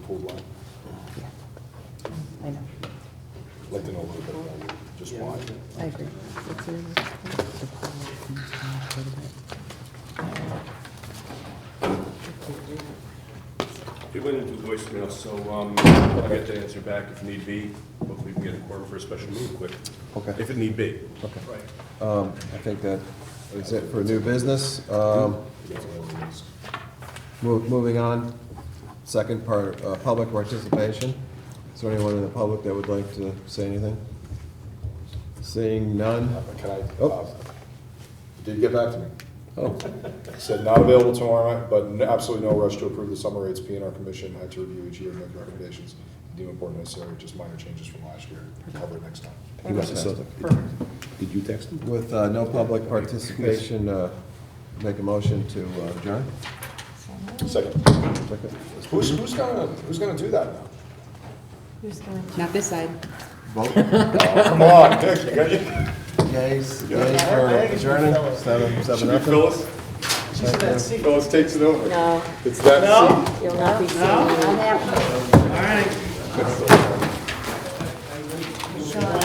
pool line? I know, I'd like to know a little bit about it, just why. I agree. It's It went into voicemail, so um, I'll get the answer back if need be. Hopefully we can get a quorum for a special meeting quick. Okay. If it need be. Okay. Right. Um, I think that is it for new business. Um, mo- Moving on, second part, uh, public participation. Is there anyone in the public that would like to say anything? Seeing none? Uh, Can I, uh, Oh. Bob, did you get back to me? Oh, Said not available tomorrow night, but n- absolutely no rush to approve the summer rates. P and R Commission had to review each year and make recommendations. Deem important necessary, just minor changes from last year. Cover it next time. You must have said Perfect. that. Did you text him? with uh, no public participation, uh, make a motion to uh, adjourn? Second, Second. who's, who's gonna, who's gonna do that now? Not this side. Vote? Come on, Dick, you got it. Yays, yays for adjourning, seven, seven, Should be nothing. Phyllis. Phyllis takes it over. No, It's that seat. you'll not be seeing me. All right. All